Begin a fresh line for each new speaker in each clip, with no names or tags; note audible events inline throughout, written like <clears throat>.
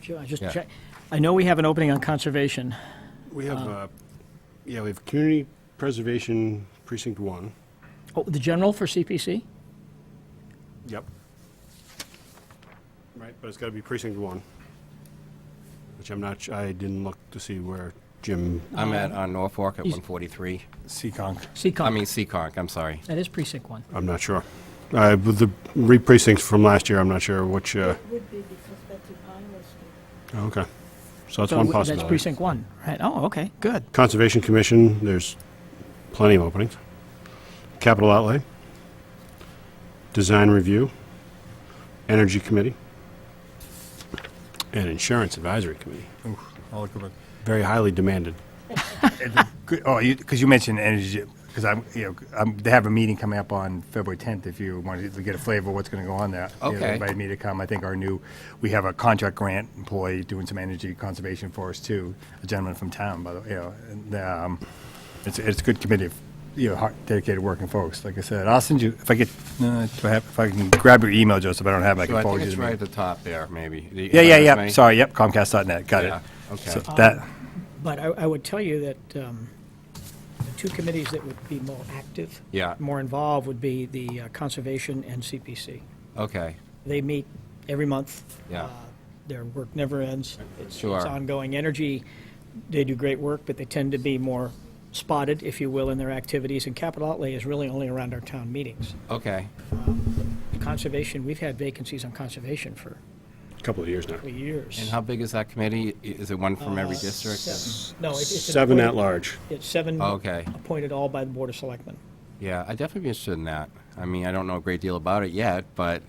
Sure, I just
Yeah.
check. I know we have an opening on conservation.
We have, uh, yeah, we have Community Preservation Precinct One.
Oh, the general for CPC?
Yep. Right, but it's gotta be Precinct One, which I'm not, su- I didn't look to see where Jim,
Oh.
I'm at on Norfolk at
He's-
143.
Seekonk.
I
Seccong.
mean, Seekonk, I'm sorry.
That is precinct one.
I'm not sure. Uh, with the re-precincts from last year, I'm not sure which, uh,
It would be because Betsy Pine was here.
oh, okay. So that's
So
one
w- That's
possibility.
precinct one, right? Oh, okay, good.
Conservation Commission, there's plenty of openings. Capital Outlay. Design Review. Energy Committee. And Insurance Advisory Committee.
I'll look over.
Very highly demanded.
Good- Oh, you, because you mentioned energy, because I'm, you know, I'm, they have a meeting coming up on February 10th if you wanted to get a flavor of what's going to go on there. You know, they
Okay.
Invited me to come. I think our new, we have a contract grant employee doing some energy conservation for us too, a gentleman from town, by the way, you know, and, um, it's, it's a good committee of, you know, hard- dedicated working folks. Like I said, I'll send you, if I get, uh, do I have- if I can grab your email, Joseph, I don't have it, I
So
can
I think
forward you
it's
the
right at
mail.
the top there, maybe. The- am I
Yeah, yeah,
with
yeah.
me?
Sorry, yep, Comcast.net, got it.
Yeah, okay.
So That,
But I, I would tell you that um, the two committees that would be more active,
Yeah.
more involved, would be the uh, conservation and CPC.
Okay,
They meet every month.
Yeah.
Uh, Their work never ends. It's-
Sure.
It's ongoing energy. They do great work, but they tend to be more spotted, if you will, in their activities. And capital outlay is really only around our town meetings.
okay.
Conservation, we've had vacancies on conservation for
Couple of years now.
years.
And how big is that committee? I- Is it one from every district?
Uh, Seven- No, it- it's.
Seven at
appointed-
large.
It's seven.
Oh, Okay.
Appointed all by the Board of Selectmen.
Yeah, I'd definitely be interested in that. I mean, I don't know a great deal about it yet, but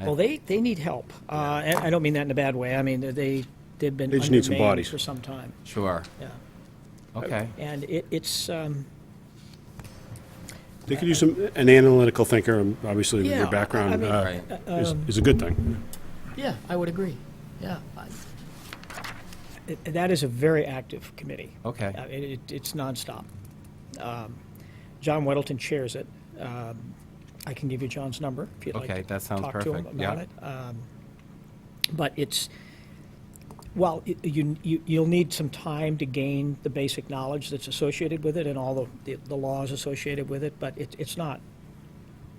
I-
Well, they, they need help. Uh, and I don't mean that in a bad way. I mean, they, they've been
They just need some
undermanned
bodies.
For some time,
sure,
yeah.
okay.
And it, it's, um,
They could use some, an analytical thinker, um, obviously with
Yeah,
your
I- I
background
mean- Um,
uh,
Right.
is is a good thing.
yeah, I would agree. Yeah. That is a very active committee.
Okay.
Uh, It, it- it's nonstop. Um, John Weddleton chairs it. Um, I can give you John's number if you'd like.
Okay,
to
that sounds
talk to him
perfect. Yeah.
about it. Um, But it's, well, y- you, you, you'll need some time to gain the basic knowledge that's associated with it and all the, the laws associated with it, but it, it's not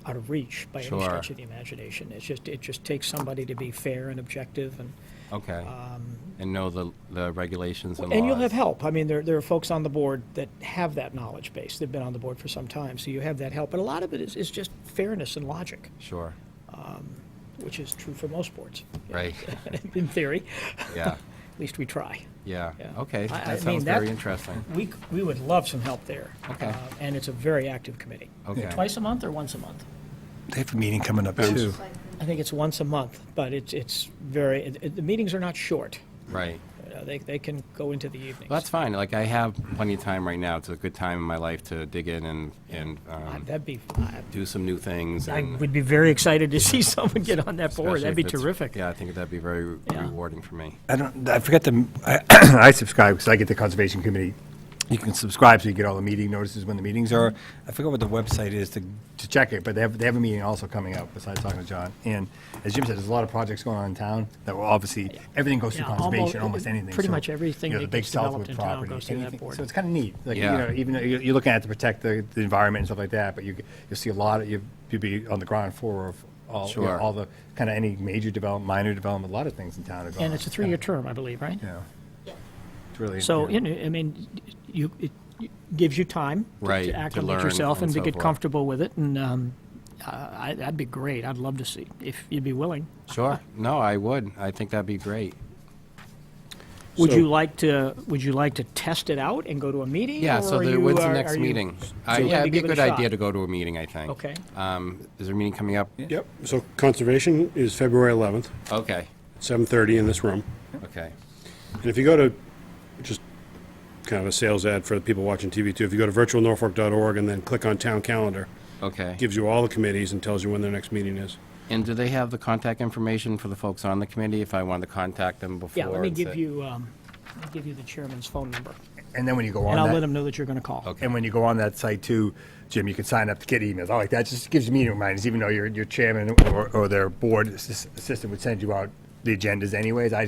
out of reach by any
Sure.
stretch of the imagination. It's just, it just takes somebody to be fair and objective and.
Okay. And know the, the regulations and laws.
Um, And you'll have help. I mean, there, there are folks on the board that have that knowledge base. They've been on the board for some time, so you have that help. But a lot of it is, is just fairness and logic,
Sure,
which is true for most boards, <laughs>
right,
in theory.
yeah,
At least we try.
yeah,
Yeah.
okay.
I- I
That
mean,
sounds
that-
very interesting.
We, c- we would love some help there.
Okay.
Uh, And it's a very active committee.
Okay.
Twice a month or once a month?
they have a meeting coming up too.
Depends.
I think it's once a month, but it's, it's very, it- it- the meetings are not short.
Right.
Uh, They, they can go into the evenings.
Well, that's fine. Like I have plenty of time right now. It's a good time in my life to dig in and and
Uh,
um,
That'd be, I-
do some new things.
I
and
would be very excited to <laughs> see someone get on that board.
especially
That'd be
if it's-
terrific.
Yeah, I think that'd be very
Yeah.
rewarding for me.
I don't, I forget the, I, <clears throat> I subscribe because I get the conservation committee. You can subscribe so you get all the meeting notices when the meetings are. I forget what the website is to, to check it, but they have, they have a meeting also coming up besides talking to John. And as Jim said, there's a lot of projects going on in town that will obviously, everything goes through
Yeah,
conservation,
almost-
almost anything.
pretty
So,
much everything
you know,
that
the big
gets developed
Southwood
in town
property,
goes through that
anything.
board.
So it's kind of neat. Like, you
Yeah.
know, even though you're, you're looking at it to protect the, the environment and stuff like that, but you, you'll see a lot of, you'll you'll be on the ground floor of all, you know,
Sure.
all the, kind of any major development, minor development, a lot of things in town are going on.
And it's a three-year term, I believe, right?
Yeah. It's really.
So,
yeah.
you know, I mean, you, it gives you time to-
Right,
to
to
acclimate
learn
yourself and
and
to
so
get
forth.
comfortable with it, and um, I- I- that'd be great. I'd love to see, if you'd be willing.
Sure. No, I would. I think that'd be great.
Would
So-
you like to, would you like to test it out and go to a meeting?
Yeah. So
or
the,
you
when's the
are-
next
are you-
meeting? Uh,
so you
yeah,
wanna
it'd be a
give it
good
a
idea
shot?
to go to a meeting. I think.
Okay.
Um, is there a meeting coming up?
Yep, so Conservation is February 11th,
Okay.
7:30 in this room.
Okay.
And if you go to, just kind of a sales ad for the people watching TV too, if you go to virtualnorfolk.org and then click on Town Calendar,
Okay.
it gives you all the committees and tells you when their next meeting is.
And do they have the contact information for the folks on the committee if I wanted to contact them before?
Yeah, let me
and
give
say-
you, um, let me give you the chairman's phone number,
And then when you go
and I'll
on
let
that,
him know that you're going to call.
Okay.
and when you go on that site too, Jim, you can sign up to get emails. I like that. Just gives me reminders, even though your, your chairman or, or their board assist- assistant would send you out the agendas anyways. I